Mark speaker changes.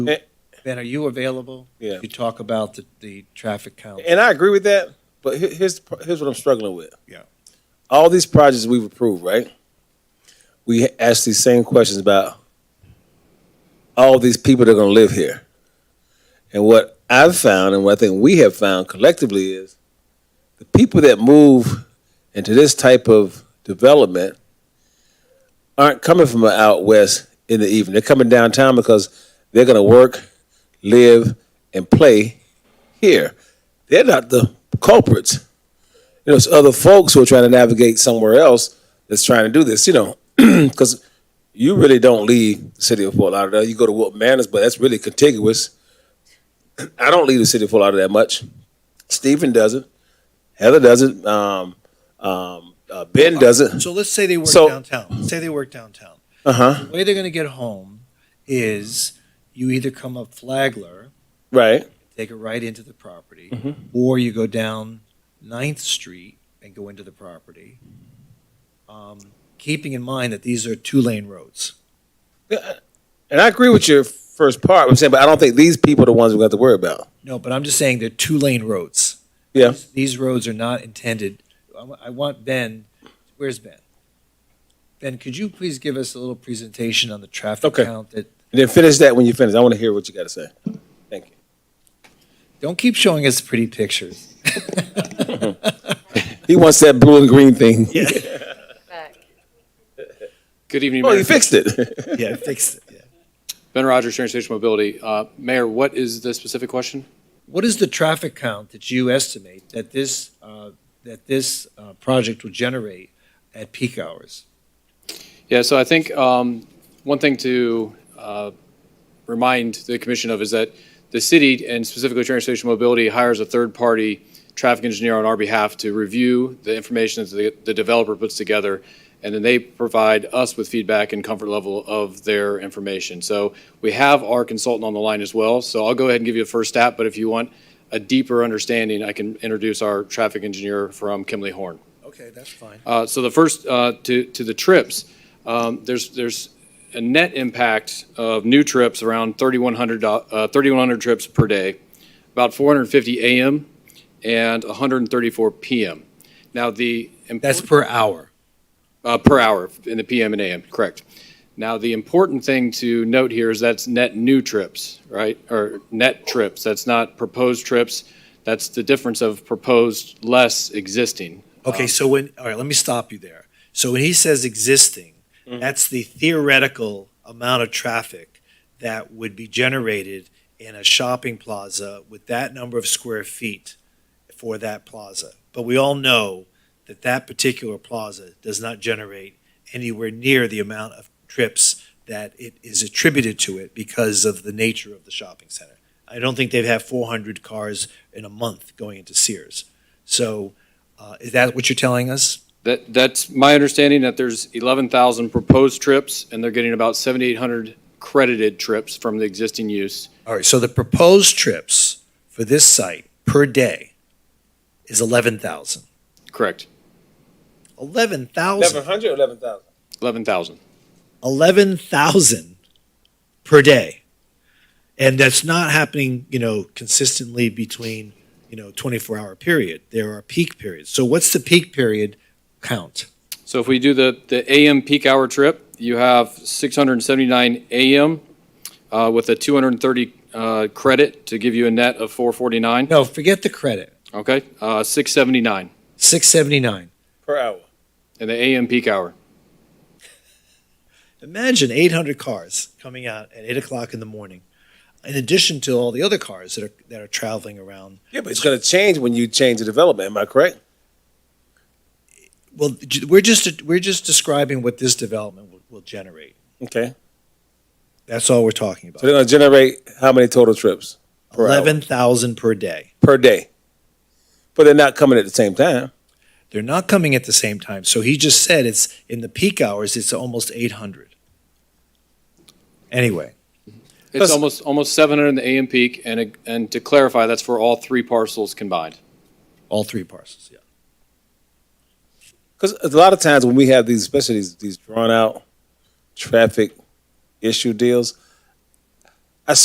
Speaker 1: Eh.
Speaker 2: Ben, are you available?
Speaker 1: Yeah.
Speaker 2: You talk about the, the traffic count.
Speaker 1: And I agree with that, but he- here's, the pro- here's what I'm struggling with.
Speaker 2: Yeah.
Speaker 1: All these projects we've approved, right? We ask these same questions about all these people that are gonna live here. And what I've found, and what I think we have found collectively is, the people that move into this type of development aren't coming from out west in the evening. They're coming downtown because they're gonna work, live, and play here they're not the culprits. You know, it's other folks who are trying to navigate somewhere else that's trying to do this, you know, because you really don't leave the city of Fort Lauderdale. You go to Wilton Manors, but that's really contiguous. I don't leave the city of Fort Lauderdale that much. Stephen doesn't. Heather doesn't. Um, um, uh, ben doesn't.
Speaker 2: So let's say they work
Speaker 1: So-
Speaker 2: downtown. Say they work downtown.
Speaker 1: Uh huh.
Speaker 2: The way they're going to get home is you either come up Flagler,
Speaker 1: Right.
Speaker 2: take it right into the property,
Speaker 1: Mm-hmm.
Speaker 2: or you go down Ninth Street and go into the property. Um, keeping in mind that these are two lane roads.
Speaker 1: And I agree with your first part. I'm saying, but I don't think these people are the ones we have to worry about.
Speaker 2: No, but I'm just saying they're two lane roads.
Speaker 1: Yeah.
Speaker 2: These- These roads are not intended, I wa- I want Ben, where's Ben? Ben, could you please give us a little presentation on the traffic
Speaker 1: Okay.
Speaker 2: count that,
Speaker 1: And then finish that when you finish. I want to hear what you got to say. Thank you.
Speaker 2: don't keep showing us pretty pictures.
Speaker 1: He wants that blue and green thing. Yeah.
Speaker 3: back.
Speaker 4: Good evening,
Speaker 1: Well, you
Speaker 4: Mayor.
Speaker 1: Oh, fixed it.
Speaker 2: Yeah, fix it. yeah.
Speaker 4: Ben Rogers, Sharon Station Mobility. Uh, Mayor, what is the specific question?
Speaker 2: What is the traffic count that you estimate that this, uh, that this uh, project will generate at peak hours?
Speaker 4: Yeah, so I think um, one thing to uh, remind the commission of is that the city, and specifically Sharon Station Mobility, hires a third-party traffic engineer on our behalf to review the information that the- the developer puts together, and then they provide us with feedback and comfort level of their information. So we have our consultant on the line as well, so I'll go ahead and give you a first stab, but if you want a deeper understanding, I can introduce our traffic engineer from Kimley Horn.
Speaker 2: Okay, that's fine.
Speaker 4: Uh, So the first, uh, to to the trips, um, there's there's a net impact of new trips around 3,100 do- uh, 3,100 trips per day, about 450 AM and 134 PM. Now, the. import-
Speaker 2: That's per hour.
Speaker 4: uh, per hour in the PM and AM, correct. Now, the important thing to note here is that's net new trips, right? Or net trips, that's not proposed trips. That's the difference of proposed less existing.
Speaker 2: Okay, so when, all right, let me stop you there. So when he says existing, that's the theoretical amount of traffic that would be generated in a shopping plaza with that number of square feet for that plaza. But we all know that that particular plaza does not generate anywhere near the amount of trips that it is attributed to it because of the nature of the shopping center. I don't think they'd have 400 cars in a month going into Sears. So uh, Is that what you're telling us?
Speaker 4: That, that's my understanding that there's 11,000 proposed trips and they're getting about 7,800 credited trips from the existing use.
Speaker 2: All right, so the proposed trips for this site per day is 11,000.
Speaker 4: Correct,
Speaker 2: 11,000,
Speaker 1: 1,100 or 11,000?
Speaker 4: 11,000.
Speaker 2: 11,000 per day. And that's not happening, you know, consistently between, you know, 24-hour period. There are peak periods. So what's the peak period count?
Speaker 4: So if we do the, the AM peak hour trip, you have 679 AM uh, with a 230 uh, credit to give you a net of 449,
Speaker 2: No, forget the credit,
Speaker 4: okay? Uh, 679
Speaker 2: 679.
Speaker 1: Per hour.
Speaker 4: in the AM peak hour.
Speaker 2: Imagine 800 cars coming out at 8 o'clock in the morning, in addition to all the other cars that are, that are traveling around
Speaker 1: Yeah, but it's going to change when you change the development. Am I correct?
Speaker 2: Well, j- we're just, we're just describing what this development will, will generate.
Speaker 1: Okay.
Speaker 2: That's all we're talking
Speaker 1: So they're
Speaker 2: about.
Speaker 1: going to generate how many total trips per hour?
Speaker 2: Eleven thousand per day.
Speaker 1: per day? But they're not coming at the same time.
Speaker 2: They're not coming at the same time. So he just said it's, in the peak hours, it's almost eight hundred. Anyway,
Speaker 4: It's
Speaker 1: Does-
Speaker 4: almost, almost 700 in the AM peak, and, a- and to clarify, that's for all three parcels combined.
Speaker 2: all three parcels, yeah.
Speaker 1: Because a lot of times when we have these, especially these, these drawn out traffic issue deals,